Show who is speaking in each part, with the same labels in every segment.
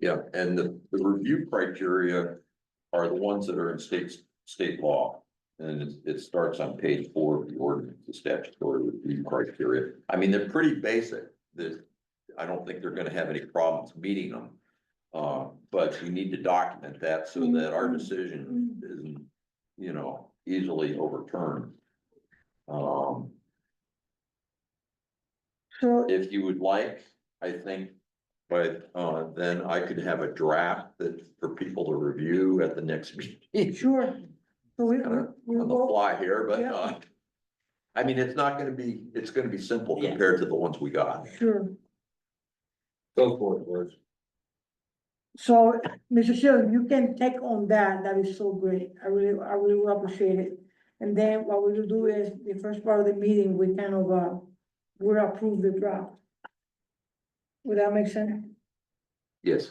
Speaker 1: Yeah, and the, the review criteria are the ones that are in state, state law. And it, it starts on page four of the ordinance, the statutory review criteria. I mean, they're pretty basic. That, I don't think they're gonna have any problems meeting them. Uh, but we need to document that so that our decision isn't, you know, easily overturned. Um,
Speaker 2: So,
Speaker 1: if you would like, I think, but uh then I could have a draft that for people to review at the next meeting.
Speaker 2: sure. So we, we,
Speaker 1: Kinda
Speaker 2: we
Speaker 1: On the
Speaker 2: will,
Speaker 1: fly here, but
Speaker 2: Yeah.
Speaker 1: uh. I mean, it's not gonna be, it's gonna be simple
Speaker 3: Yeah.
Speaker 1: compared to the ones we got.
Speaker 2: sure.
Speaker 4: Go for it, Liz.
Speaker 2: So, Mr. Chair, you can take on that, that is so great, I really, I really will appreciate it. And then what we will do is, the first part of the meeting, we kind of, uh, will approve the draft. Would that make sense?
Speaker 1: Yes.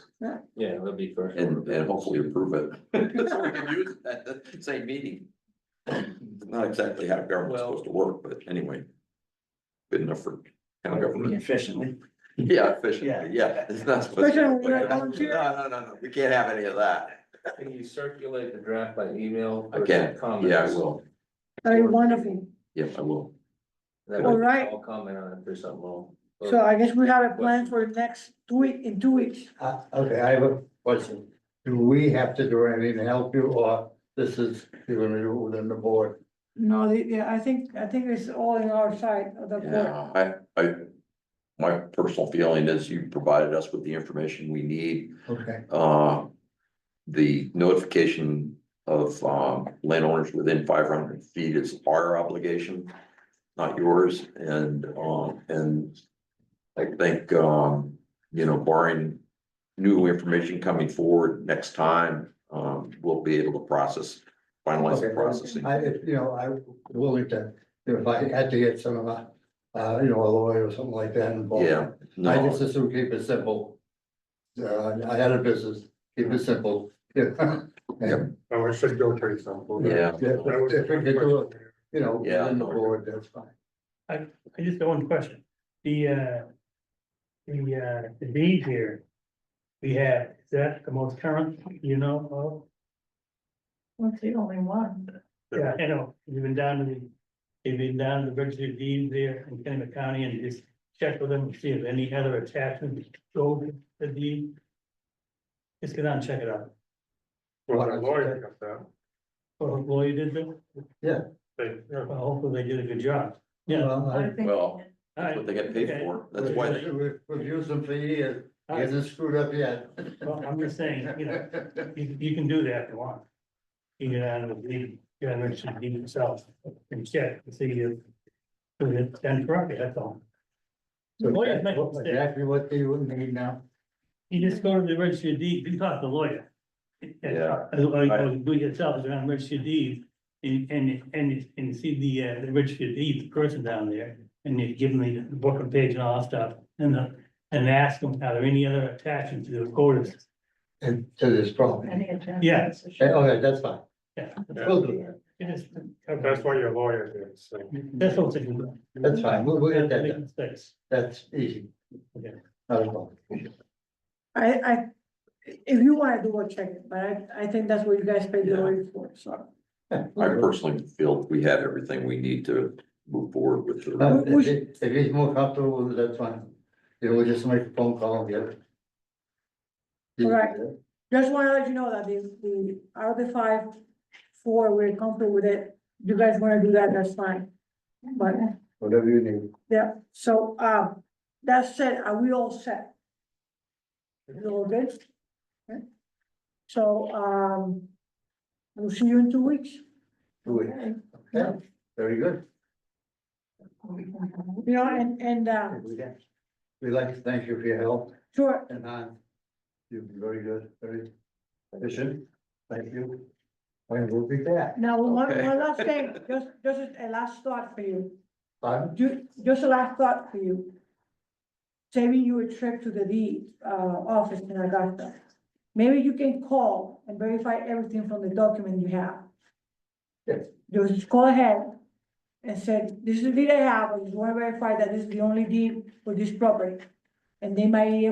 Speaker 4: Yeah, that'll be first.
Speaker 1: And and hopefully approve it. So we can use it at the same meeting. Not exactly how government's supposed to work, but anyway. Good enough for county government.
Speaker 3: Efficiently.
Speaker 1: Yeah, efficiently, yeah, it's not supposed to.
Speaker 2: Especially when you're
Speaker 1: No,
Speaker 2: volunteering.
Speaker 1: no, no, no, we can't have any of that.
Speaker 4: Can you circulate the draft by email?
Speaker 1: I can, yeah, I will,
Speaker 2: That is wonderful.
Speaker 1: yeah, I will.
Speaker 2: All right.
Speaker 4: I'll comment on it if there's something wrong.
Speaker 2: So I guess we have a plan for the next two week, in two weeks.
Speaker 5: Uh, okay, I have a question. Do we have to do anything to help you or this is, you're gonna do it within the board?
Speaker 2: No, the- yeah, I think, I think it's all in our side of the board.
Speaker 1: Yeah, I, I, my personal feeling is you provided us with the information we need,
Speaker 5: Okay,
Speaker 1: uh. The notification of, um, landowners within five hundred feet is our obligation, not yours, and, um, and. I think, um, you know, barring new information coming forward next time, um, we'll be able to process, finalize the
Speaker 5: Okay.
Speaker 1: processing.
Speaker 5: I, if, you know, I'm willing to, if I had to get some of my, uh, you know, a lawyer or something like that involved.
Speaker 1: Yeah,
Speaker 5: I
Speaker 1: no.
Speaker 5: just assume keep it simple. Uh, I had a business, keep it simple. Yeah. And,
Speaker 6: Oh, it should go pretty simple.
Speaker 1: Yeah.
Speaker 5: If
Speaker 6: That was
Speaker 5: if we could do it, you know,
Speaker 1: Yeah.
Speaker 5: within the board, that's fine.
Speaker 7: I just got one question. The, uh, the, uh, the deed here. We have, is that the most current, you know,
Speaker 2: That's the only one.
Speaker 7: of? Yeah, I know, you've been down to the, you've been down to the register of deeds there in Kennebec County and just check with them, to see if any other attachment showed the deed. Just go down and check it out.
Speaker 6: Well, the lawyer got that.
Speaker 7: Well, Lawyer did do,
Speaker 6: They- yeah.
Speaker 7: well, hopefully they did a good job. Yeah.
Speaker 5: Well, I-
Speaker 1: Well,
Speaker 7: all
Speaker 1: that's
Speaker 7: right,
Speaker 1: what they get paid
Speaker 7: okay.
Speaker 1: for, that's why they.
Speaker 5: We've we've used them for years,
Speaker 7: All right,
Speaker 5: hasn't screwed up yet.
Speaker 7: Well, I'm just saying, you know, You, you can do that if you want. You can, uh, leave, you can mention it yourself and check and see if. If it's done correctly, that's all. The lawyers make mistakes.
Speaker 5: Exactly what they would need now.
Speaker 7: You just go to the registry of deeds, you talk to the lawyer. uh,
Speaker 1: Yeah.
Speaker 7: As well, as do it yourself, is around the registry of deeds. And, and, and, and see the, uh, the registry of deeds person down there. And you give them the book and page and all that stuff. And, uh, and ask them, are there any other attachments to the orders?
Speaker 5: And to this problem.
Speaker 7: Yeah.
Speaker 5: Okay, that's fine.
Speaker 7: Yeah.
Speaker 5: We'll do that.
Speaker 7: It is-
Speaker 6: That's what your lawyer did, so.
Speaker 7: That's all. they can do.
Speaker 5: That's fine. We'll, we'll get that
Speaker 7: Make
Speaker 5: done.
Speaker 7: mistakes.
Speaker 5: That's easy.
Speaker 7: Okay.
Speaker 5: Not a problem.
Speaker 2: I, I, if you wanna do a check, it, but I, I think that's what you guys paid the lawyer for, so.
Speaker 1: I personally feel we have everything we need to move forward with the,
Speaker 2: Uh,
Speaker 5: But If he- if he's more comfortable with it, that's fine. You know, we just make a phone call and get it.
Speaker 2: All right. Just wanna let you know that the, the, out of the five, four, we're comfortable with it. You guys wanna do that, that's fine. But,
Speaker 5: Whatever you need.
Speaker 2: yeah, so, um, that said, are we all set? You all good? Okay. So, um, we'll see you in two weeks.
Speaker 5: Do it.
Speaker 2: Yeah.
Speaker 5: Very good.
Speaker 2: You know, and, and, uh,
Speaker 5: We'd like to thank you for your help
Speaker 2: sure,
Speaker 5: and, uh, you've been very good, very efficient. Thank you. And we'll be back.
Speaker 2: now, one,
Speaker 1: Okay.
Speaker 2: one last thing, just, just a last thought for you,
Speaker 5: Pardon?
Speaker 2: Ju- just a last thought for you. Saving you a trip to the deed, uh, office in Augusta. Maybe you can call and verify everything from the document you have.
Speaker 5: Yes.
Speaker 2: Just call ahead and say, this is the deed I have, I just wanna verify that this is the only deed for this property. and they might